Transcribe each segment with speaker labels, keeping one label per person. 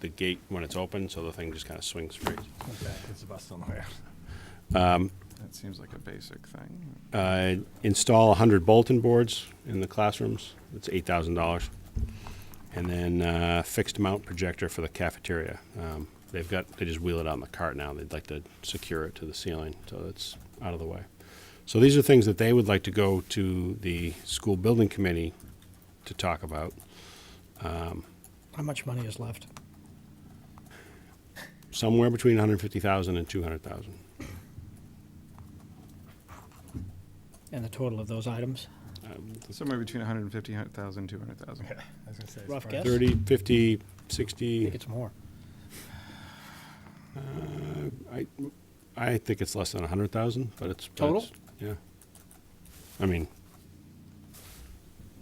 Speaker 1: the gate when it's open, so the thing just kind of swings free.
Speaker 2: It's the best on the way.
Speaker 3: That seems like a basic thing.
Speaker 1: Uh, Install 100 bulletin boards in the classrooms. It's $8,000. And then uh, fixed mount projector for the cafeteria. Um, They've got, they just wheel it out in the cart now. They'd like to secure it to the ceiling, so that's out of the way. So these are things that they would like to go to the school building committee to talk about.
Speaker 4: How much money is left?
Speaker 1: somewhere between 150,000 and 200,000.
Speaker 4: And the total of those items?
Speaker 3: Somewhere between 150,000, 200,000.
Speaker 4: Rough guess?
Speaker 1: 30, 50,
Speaker 4: I think
Speaker 1: 60,
Speaker 4: it's more.
Speaker 1: I, I think it's less than 100,000, but it's. but
Speaker 4: Total?
Speaker 1: it's- Yeah. I mean,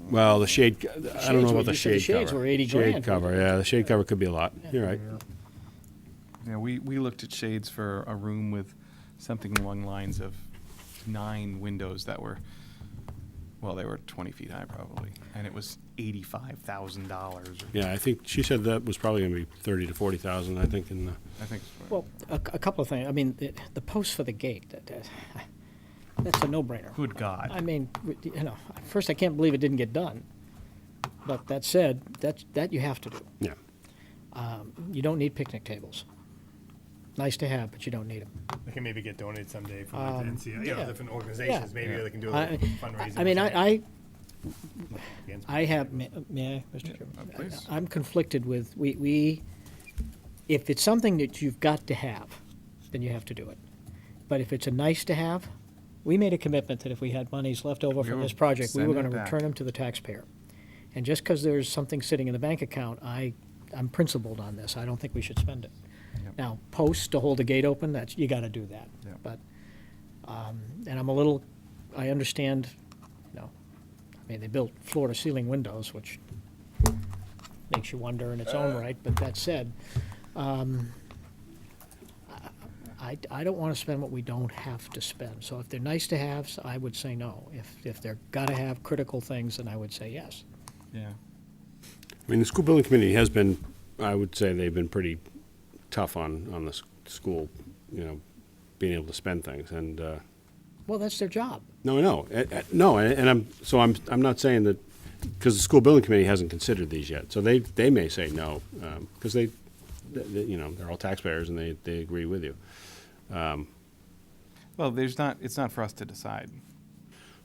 Speaker 1: well, the shade, co- I don't know
Speaker 4: shades were-
Speaker 1: about the
Speaker 4: you said the
Speaker 1: shade cover.
Speaker 4: shades were 80
Speaker 1: Shade
Speaker 4: grand.
Speaker 1: cover, yeah, the shade cover could be a lot. You're right.
Speaker 3: Yeah, we, we looked at shades for a room with something along lines of nine windows that were, well, they were 20 feet high probably, and it was $85,000. or-
Speaker 1: Yeah, I think she said that was probably going to be 30 to 40,000, I think, in the,
Speaker 3: I think.
Speaker 4: Well, a, a couple of things. I mean, the, the post for the gate, that, that- that's a no-brainer.
Speaker 3: Good God.
Speaker 4: I mean, you know, at first I can't believe it didn't get done. But that said, that, that you have to do. Um,
Speaker 1: yeah.
Speaker 4: You don't need picnic tables. Nice to have, but you don't need them.
Speaker 2: They can maybe get donated someday from like, the NCI, you know,
Speaker 4: Um, yeah.
Speaker 2: different organizations. Maybe
Speaker 3: Yeah.
Speaker 2: they can do a
Speaker 4: I,
Speaker 2: little fundraiser.
Speaker 4: I mean, I, I,
Speaker 2: Against-
Speaker 4: I have, may may I, Mr. Chairman?
Speaker 3: uh, please.
Speaker 4: I'm conflicted with, we, we, if it's something that you've got to have, then you have to do it. But if it's a nice to have, we made a commitment that if we had monies left over from
Speaker 3: will
Speaker 4: this project, we were
Speaker 3: send it
Speaker 4: gonna
Speaker 3: back.
Speaker 4: return them to the taxpayer. And just because there's something sitting in the bank account, I, I'm principled on this, I don't think we should spend it.
Speaker 3: Yep.
Speaker 4: Now, posts to hold the gate open, that's, you gotta do that.
Speaker 3: Yep.
Speaker 4: But, um, and I'm a little, I understand, you know, I mean, they built floor-to-ceiling windows, which makes you wonder in its
Speaker 1: Uh.
Speaker 4: own right, but that said, um, I, I don't want to spend what we don't have to spend. So if they're nice to haves, I would say no. If, if they're gotta have critical things, then I would say yes.
Speaker 3: Yeah.
Speaker 1: I mean, the school building committee has been, I would say they've been pretty tough on, on the s- school, you know, being able to spend things, and, uh,
Speaker 4: Well, that's their job.
Speaker 1: No, no, eh, eh, no, and and I'm, so I'm, I'm not saying that, because the school building committee hasn't considered these yet, so they, they may say no, because they, th- th- you know, they're all taxpayers and they, they agree with you.
Speaker 3: Well, there's not, it's not for us to decide.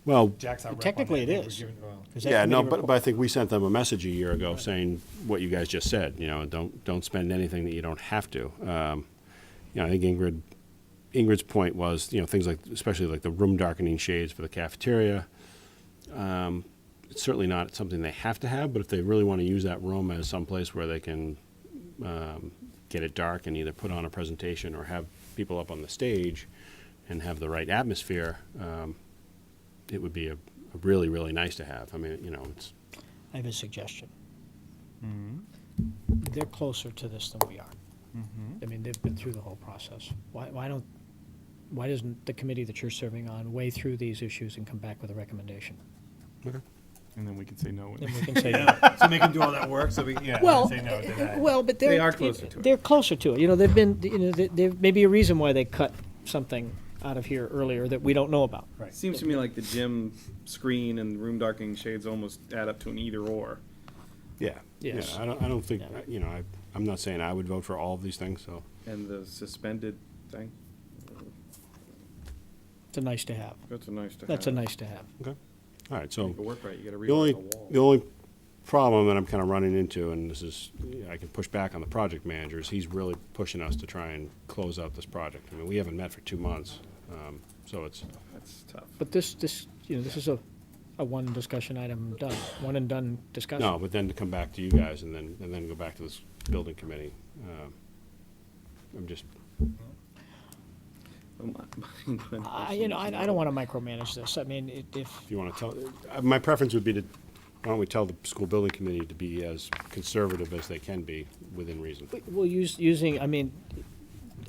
Speaker 1: Well,
Speaker 2: Jack's our rep on
Speaker 4: Technically
Speaker 2: that.
Speaker 4: it
Speaker 2: I think we're
Speaker 4: is.
Speaker 2: giving- well,
Speaker 4: 'Cause that
Speaker 1: yeah, no,
Speaker 4: committee
Speaker 1: but,
Speaker 4: report-
Speaker 1: but I think we sent them a message a year ago saying what you guys just said, you know, don't, don't spend anything that you don't have to. Um, You know, I think Ingrid, Ingrid's point was, you know, things like, especially like the room darkening shades for the cafeteria, um, it's certainly not something they have to have, but if they really want to use that room as some place where they can um, get it dark and either put on a presentation or have people up on the stage and have the right atmosphere, um, it would be a, a really, really nice to have. I mean, you know, it's,
Speaker 4: I have a suggestion.
Speaker 2: Mm-hmm.
Speaker 4: They're closer to this than we are.
Speaker 2: Mm-hmm.
Speaker 4: I mean, they've been through the whole process. Why, why don't, why doesn't the committee that you're serving on weigh through these issues and come back with a recommendation?
Speaker 3: And then we can say no.
Speaker 4: Then we can say no.
Speaker 2: yeah. so make them do all that work. So we yeah.
Speaker 4: Well,
Speaker 2: say no, deny.
Speaker 4: uh, well, but they're
Speaker 3: They are closer to it.
Speaker 4: They're closer to it. You know, they've been. You know, there- there may be a reason why they cut something out of here earlier that we don't know about.
Speaker 2: right.
Speaker 3: Seems to me like the gym screen and room darkening shades almost add up to an either or.
Speaker 1: yeah.
Speaker 4: Yes.
Speaker 1: Yeah, I don't, I don't think,
Speaker 4: Yeah.
Speaker 1: you know, I, I'm not saying I would vote for all of these things, so.
Speaker 3: And the suspended thing,
Speaker 4: It's a nice to have.
Speaker 3: that's a nice to have.
Speaker 4: That's a nice to have.
Speaker 1: Okay. All right,
Speaker 3: Make
Speaker 1: so.
Speaker 3: it work right, you gotta
Speaker 1: The
Speaker 3: rewrite
Speaker 1: only,
Speaker 3: the wall.
Speaker 1: the only problem that I'm kind of running into, and this is, I can push back on the project manager, is he's really pushing us to try and close out this project. I mean, we haven't met for two months, um, so it's,
Speaker 3: That's tough.
Speaker 4: But this, this, you know, this is a, a one discussion item done. One and done discussion.
Speaker 1: no, but then to come back to you guys and then, and then go back to this building committee, um, I'm just,
Speaker 4: I, you know, I, I don't want to micromanage this. I mean, it, if
Speaker 1: if you want to tell, uh, my preference would be to, why don't we tell the school building committee to be as conservative as they can be within reason?
Speaker 4: Well, use, using, I mean,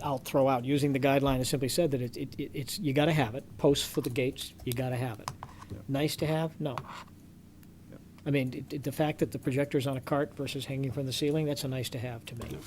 Speaker 4: I'll throw out, using the guideline, I simply said that it, it, it- it's, you gotta have it, posts for the gates, you gotta have it. Nice to have, no. I mean, it- it- the fact that the projector's on a cart versus hanging from the ceiling, that's a nice to have to me.